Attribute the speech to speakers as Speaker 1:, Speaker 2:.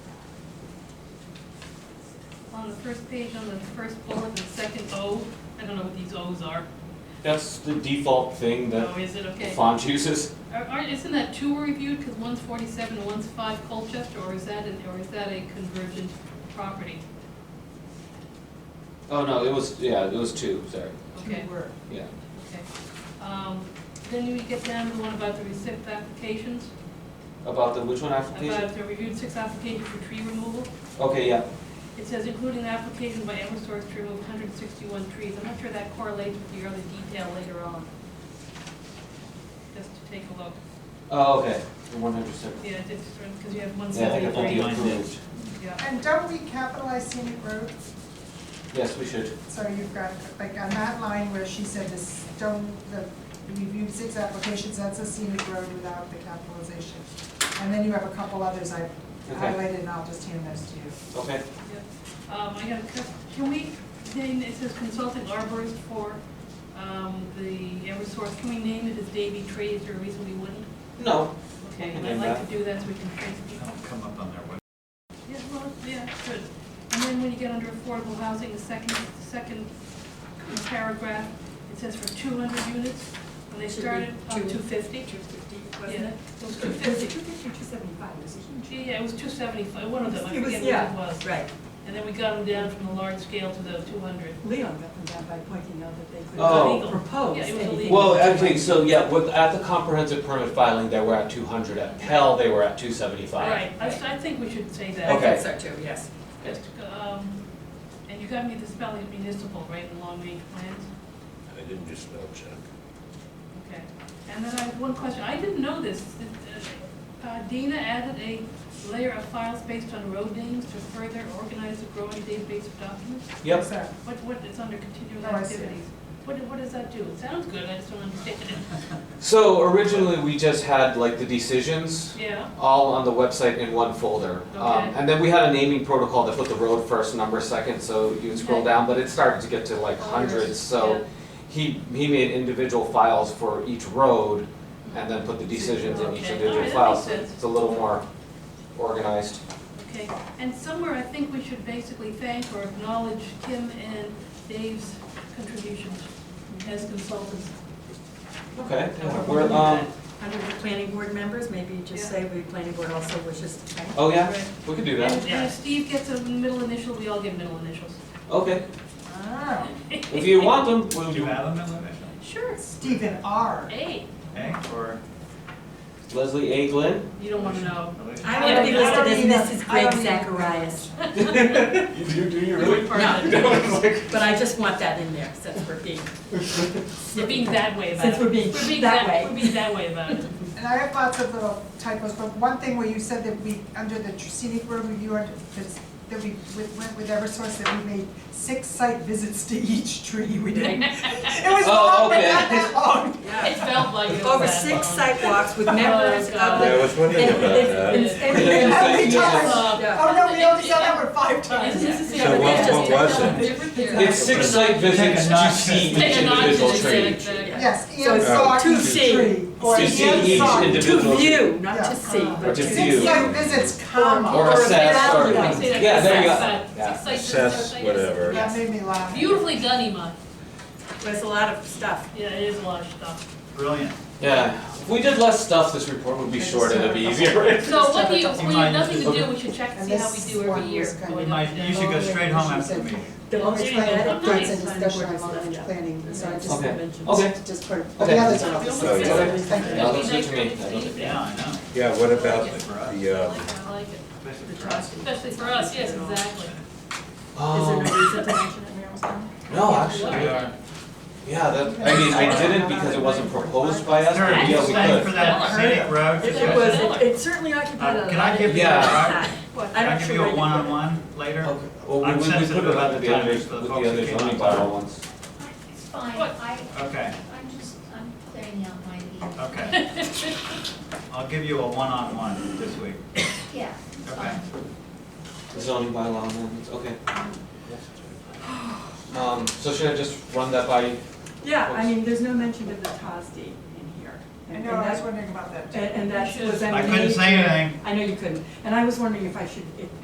Speaker 1: on the first page, on the first bullet, the second O, I don't know what these Os are.
Speaker 2: That's the default thing
Speaker 1: Oh,
Speaker 2: that
Speaker 1: is it, okay.
Speaker 2: font uses.
Speaker 1: Are- are- Isn't that two were reviewed, because one's forty-seven and one's five Colchester, or is that, an- or is that a convergent property?
Speaker 2: Oh, no, it was, yeah, it was two, sorry,
Speaker 1: Okay,
Speaker 3: Two were.
Speaker 2: yeah.
Speaker 1: okay. Um, Then we get down to the one about the recip applications,
Speaker 2: About the, which one application?
Speaker 1: about the reviewed six applications for tree removal.
Speaker 2: Okay, yeah,
Speaker 1: It says including the application by Eversource to remove 161 trees. I'm not sure that correlates with the other detail later on. Just to take a look.
Speaker 2: oh, okay, the one hundred seven.
Speaker 1: Yeah, just, because you have
Speaker 2: Yeah, I think I
Speaker 1: 173.
Speaker 2: pulled the
Speaker 4: Mine did.
Speaker 2: approved.
Speaker 1: Yeah,
Speaker 3: And don't we capitalize scenic roads?
Speaker 2: Yes, we should.
Speaker 3: So you've got, like, on that line where she said this, don't, the, reviewed six applications, that's a scenic road without the capitalization. And then you have a couple others I
Speaker 2: Okay.
Speaker 3: highlighted, and I'll just hand those to you.
Speaker 2: Okay,
Speaker 1: yeah. Um, I got a, cou- can we, then it says consulting arborist for um, the Eversource. Can we name it as Davy Tree? Is there a reason we wouldn't?
Speaker 2: no,
Speaker 1: Okay,
Speaker 2: can
Speaker 1: and
Speaker 2: name
Speaker 1: I'd like
Speaker 2: that.
Speaker 1: to do that so we can trace people.
Speaker 4: It'll come up on their web.
Speaker 1: Yeah, well, yeah, good. And then when you get under affordable housing, the second, second paragraph, it says for two hundred units, when they
Speaker 5: Should be
Speaker 1: started, up
Speaker 5: two.
Speaker 1: two fifty.
Speaker 5: Two fifty, wasn't
Speaker 1: Yeah,
Speaker 5: it?
Speaker 1: it was
Speaker 5: Two
Speaker 1: two
Speaker 5: fifty,
Speaker 1: fifty.
Speaker 5: two fifty or two seventy-five, it was a huge.
Speaker 1: Gee, yeah, it was two seventy-five, one of them, I
Speaker 5: It was-
Speaker 1: forget
Speaker 5: yeah,
Speaker 1: what it was.
Speaker 5: Right,
Speaker 1: And then we got them down from the large scale to the two hundred.
Speaker 5: Leon got them down by pointing out that they could
Speaker 2: Oh.
Speaker 5: not propose
Speaker 1: Yeah, it was
Speaker 5: anything.
Speaker 1: illegal.
Speaker 2: well, actually, so, yeah, with, at the comprehensive permit filing, they were at two hundred, at Pell, they were at two seventy-five.
Speaker 1: Right, I, I think we should say
Speaker 5: I
Speaker 1: that.
Speaker 2: Okay.
Speaker 5: think so too, yes.
Speaker 1: Just, um, and you got me the spelling of municipal, right, in Long Range Plans?
Speaker 6: I didn't just spell check.
Speaker 1: Okay, and then I have one question, I didn't know this, Uh, Dina added a layer of files based on road names to further organize the growing database of documents?
Speaker 2: Yep,
Speaker 3: What's that?
Speaker 1: What, what, it's under continuing
Speaker 3: Oh, I see.
Speaker 1: activities? What, what does that do? It sounds good, I just don't understand it.
Speaker 2: so originally, we just had like the decisions,
Speaker 1: Yeah,
Speaker 2: all on the website in one folder. Um,
Speaker 1: Okay.
Speaker 2: And then we had a naming protocol that put the road first, number second, so you'd scroll
Speaker 1: Okay. Oh,
Speaker 2: down, but it started to get to like
Speaker 1: Folders,
Speaker 2: hundreds, so he, he made individual files for each road and then put the decisions in each
Speaker 1: Okay.
Speaker 2: individual
Speaker 1: Alright, that
Speaker 2: file,
Speaker 1: makes
Speaker 2: so
Speaker 1: sense.
Speaker 2: it's a little more organized.
Speaker 1: okay. And somewhere I think we should basically thank or acknowledge Kim and Dave's contributions as consultants.
Speaker 2: Okay, yeah,
Speaker 1: However we
Speaker 2: we're,
Speaker 1: do
Speaker 2: um,
Speaker 5: Under the planning board members, maybe
Speaker 1: Yeah.
Speaker 5: just say we, planning board also wishes to thank.
Speaker 2: oh yeah,
Speaker 1: Right.
Speaker 2: we could do
Speaker 1: that.
Speaker 2: that.
Speaker 1: And and if Steve gets a middle initial, we all get middle initials.
Speaker 2: Okay,
Speaker 3: Oh,
Speaker 2: if you want them,
Speaker 4: Do you
Speaker 2: we'll,
Speaker 4: have them in Lebanon?
Speaker 1: Sure.
Speaker 3: Stephen R.
Speaker 1: Hey,
Speaker 4: Okay, or?
Speaker 2: Leslie A. Glenn?
Speaker 1: you don't want to know.
Speaker 5: I
Speaker 3: I
Speaker 5: want to be
Speaker 3: don't- I don't
Speaker 5: listed
Speaker 3: need
Speaker 5: as
Speaker 3: that.
Speaker 5: Mrs.
Speaker 3: I
Speaker 5: Greg
Speaker 3: don't need that.
Speaker 5: Zacharias,
Speaker 2: You do, do you really?
Speaker 5: but I just want that in there since we're being,
Speaker 1: We're being that way about it.
Speaker 5: Since we're being that way.
Speaker 1: We're being that way about it.
Speaker 3: And I have lots of little typos, but one thing where you said that we, under the scenic road review, under this- that we went went with Eversource, that we made six site visits to each tree, we didn't. It was
Speaker 2: Oh,
Speaker 3: long, but
Speaker 2: okay.
Speaker 3: not that long.
Speaker 1: It felt like it was
Speaker 5: over
Speaker 1: that
Speaker 5: six
Speaker 1: long.
Speaker 5: sidewalks with members of
Speaker 1: God.
Speaker 5: the.
Speaker 1: Yeah, I
Speaker 6: was wondering
Speaker 5: and-
Speaker 6: about
Speaker 5: and-
Speaker 6: that.
Speaker 5: and- and-
Speaker 2: How many
Speaker 5: and-
Speaker 3: times?
Speaker 5: Yeah.
Speaker 3: Oh, no, we only saw that one five
Speaker 1: This
Speaker 3: times.
Speaker 1: is- this is-
Speaker 5: So what-
Speaker 1: this is
Speaker 5: what
Speaker 6: was it?
Speaker 1: different here.
Speaker 2: It's six site visits to see
Speaker 1: Take
Speaker 2: each
Speaker 1: a nod to
Speaker 2: individual
Speaker 1: the
Speaker 2: tree.
Speaker 1: civic that-
Speaker 3: Yes,
Speaker 5: So
Speaker 3: and
Speaker 5: it's
Speaker 3: saw
Speaker 5: to
Speaker 3: each
Speaker 5: see.
Speaker 3: tree. Or
Speaker 2: To
Speaker 3: and
Speaker 2: see each
Speaker 3: saw-
Speaker 2: individual
Speaker 5: To
Speaker 2: tree.
Speaker 5: view, not
Speaker 3: Yeah.
Speaker 5: to see,
Speaker 2: Or
Speaker 5: but
Speaker 2: to
Speaker 5: to
Speaker 2: view.
Speaker 3: Six site visits,
Speaker 2: Or
Speaker 3: comma.
Speaker 2: assess, or,
Speaker 5: Yeah.
Speaker 1: Say that
Speaker 2: yeah, there you go,
Speaker 1: again.
Speaker 2: yeah.
Speaker 1: Six sites,
Speaker 6: Assess,
Speaker 1: six sites.
Speaker 6: whatever.
Speaker 3: That made me laugh.
Speaker 1: Beautifully done, Iman.
Speaker 5: There's a lot of stuff.
Speaker 1: Yeah, it is a lot of stuff.
Speaker 4: Brilliant.
Speaker 2: Yeah, if we did less stuff, this report would be
Speaker 3: I just
Speaker 2: shorter, it'd be
Speaker 3: have a
Speaker 2: easier, right?
Speaker 1: So what do you,
Speaker 4: couple
Speaker 1: when you have
Speaker 4: lines.
Speaker 1: nothing to do,
Speaker 2: Okay.
Speaker 1: we should check and
Speaker 3: And
Speaker 1: see how we
Speaker 3: this
Speaker 1: do every
Speaker 3: one
Speaker 1: year.
Speaker 3: was kind
Speaker 4: You
Speaker 1: going
Speaker 4: might,
Speaker 1: up
Speaker 4: you
Speaker 1: and
Speaker 4: should
Speaker 1: down.
Speaker 4: go straight home after the meeting.
Speaker 3: The only
Speaker 1: Yeah,
Speaker 3: time I
Speaker 1: oh,
Speaker 3: had
Speaker 1: nice.
Speaker 3: in discussion on long-range planning, so I just,
Speaker 2: Okay. Okay.
Speaker 3: just put, but
Speaker 2: Okay.
Speaker 3: the others are all the
Speaker 6: Oh,
Speaker 3: same. so
Speaker 6: yeah.
Speaker 3: thank you.
Speaker 2: Yeah,
Speaker 1: It'd be
Speaker 2: looks good to me.
Speaker 1: nice
Speaker 2: That looks
Speaker 1: see.
Speaker 4: Yeah, I know.
Speaker 6: Yeah, what about the,
Speaker 1: I
Speaker 6: uh,
Speaker 1: like it, I like it.
Speaker 4: Especially
Speaker 5: The
Speaker 4: for us.
Speaker 5: trust.
Speaker 1: Especially for us, yes, exactly.
Speaker 5: Is
Speaker 2: Um,
Speaker 5: there no reason to mention it in Merrill's Town?
Speaker 3: Oh,
Speaker 2: no, actually,
Speaker 1: We are.
Speaker 2: yeah, that, I mean, I didn't because it wasn't proposed by us, but yeah, we
Speaker 4: Thank you for
Speaker 2: could.
Speaker 4: that scenic road.
Speaker 5: It
Speaker 4: discussion.
Speaker 5: it was, it- it certainly
Speaker 4: Uh,
Speaker 5: occupied a lot of.
Speaker 4: can I give
Speaker 2: you a-
Speaker 5: time.
Speaker 1: What?
Speaker 5: I'm
Speaker 4: Can I
Speaker 5: not
Speaker 4: give
Speaker 5: sure
Speaker 4: you
Speaker 5: where
Speaker 4: a
Speaker 5: put it.
Speaker 4: one-on-one later?
Speaker 2: Okay, Well, we,
Speaker 4: I'm
Speaker 2: we we put
Speaker 4: sensitive
Speaker 2: it
Speaker 4: about
Speaker 2: on with
Speaker 4: the
Speaker 2: the other,
Speaker 4: timers
Speaker 2: with
Speaker 4: for
Speaker 2: the
Speaker 4: the folks
Speaker 2: other
Speaker 4: who came
Speaker 2: zoning
Speaker 4: on.
Speaker 2: bylaw ones.
Speaker 7: It's fine,
Speaker 1: What?
Speaker 7: I,
Speaker 4: Okay,
Speaker 7: I'm just, I'm clearing out my email.
Speaker 4: okay. I'll give you a one-on-one this week.
Speaker 7: Yeah, it's
Speaker 4: Okay.
Speaker 7: fine.
Speaker 2: The zoning bylaw amendments, okay. Um, so should I just run that by,
Speaker 5: Yeah, I mean, there's no mention of the TOSD in here.
Speaker 3: I
Speaker 5: And-
Speaker 3: know,
Speaker 5: and
Speaker 3: I was
Speaker 5: that-
Speaker 3: wondering about that too.
Speaker 5: And and that
Speaker 1: You should.
Speaker 5: was that
Speaker 4: I couldn't
Speaker 5: made-
Speaker 4: say anything.
Speaker 5: I know you couldn't, and I was wondering if I should, if